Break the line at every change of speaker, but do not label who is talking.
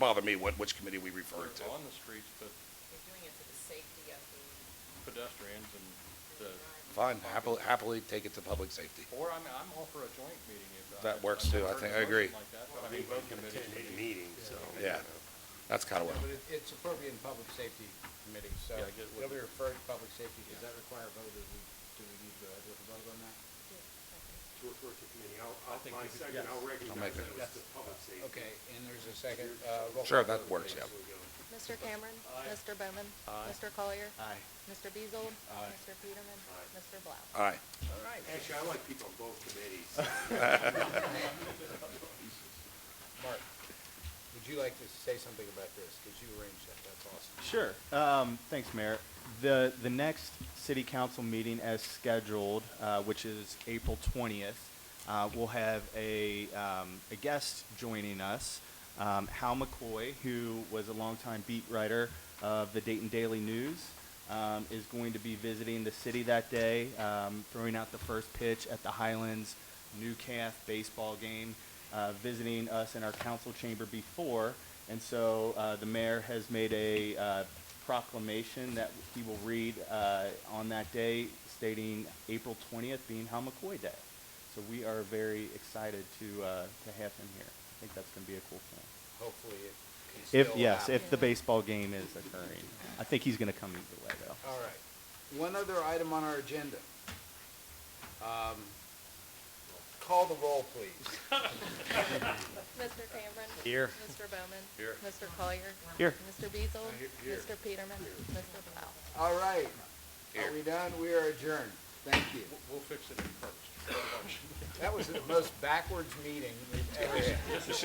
bother me what, which committee we refer it to.
On the streets, but
We're doing it for the safety of the
pedestrians and the,
Fine, happily, happily take it to public safety.
or I'm, I'm all for a joint meeting if. uh,
That
if
works
I've
too. I
heard
think-
a
I
motion
agree.
Like that, but I mean, both committees. would be-
meeting, so.
Yeah, that's kind of what,
But it, it's appropriate in public safety committee, so
Yeah, I get what-
it'll be referred to public safety. Does that require a vote, or do we, do we need to have a vote on that?
To refer to committee, I'll, I'll,
think
my
we could-
second, I'll
make
recognize
it.
that it's the public safety.
Okay, and there's a second, uh, roll call.
sure, that
vote,
works, yeah.
please.
Here we go.
Mr. Cameron. Mr. Bowman.
Aye.
Mr. Collier.
Aye.
Mr. Beazle.
Aye.
Mr. Peterman.
Aye.
Mr. Blau.
Uh,
All right,
All right,
Actually, I like people on both committees.
Mark, would you like to say something about this, because you arranged that, that's awesome.
Sure. Um, thanks, Mayor. The, the next city council meeting as scheduled, uh, which is April 20th, uh, we'll have a, um, a guest joining us, um, Hal McCoy, who was a longtime beat writer of the Dayton Daily News, um, is going to be visiting the city that day, um, throwing out the first pitch at the Highlands New Calf baseball game, uh, visiting us in our council chamber before. And so uh, the mayor has made a uh, proclamation that he will read uh, on that day stating April 20th being Hal McCoy Day. So we are very excited to, uh, to have him here. I think that's going to be a cool thing.
Hopefully it can
If,
still
yes,
happen.
if the baseball game is occurring. I think he's going to come either way, though.
All right. One other item on our agenda. Um, Call the roll, please.
Mr. Cameron.
Here.
Mr. Bowman.
Here.
Mr. Collier.
Here.
Mr. Beazle.
Here, here.
Mr. Peterman. Mr. Blau.
All right.
Here.
Are we done? We are adjourned. Thank you.
We'll- We'll fix it in first.
That was the most backwards meeting we've ever had.